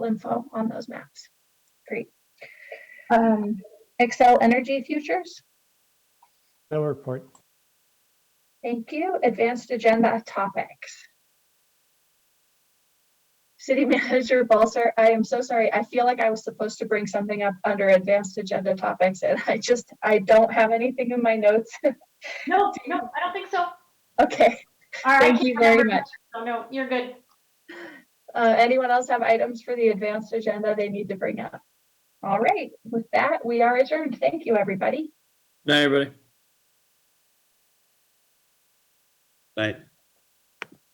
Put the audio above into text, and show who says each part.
Speaker 1: info on those maps. Great. Um, Excel Energy Futures,
Speaker 2: No report.
Speaker 1: thank you. Advanced Agenda Topics. City Manager Balser, I am so sorry. I feel like I was supposed to bring something up under Advanced Agenda Topics and I just, I don't have anything in my notes.
Speaker 3: No, no, I don't think so.
Speaker 1: Okay,
Speaker 3: All right.
Speaker 1: thank you very much.
Speaker 3: No, no, you're good.
Speaker 1: Uh, anyone else have items for the advanced agenda they need to bring up? All right, with that, we are adjourned. Thank you, everybody.
Speaker 4: Night, everybody. Night.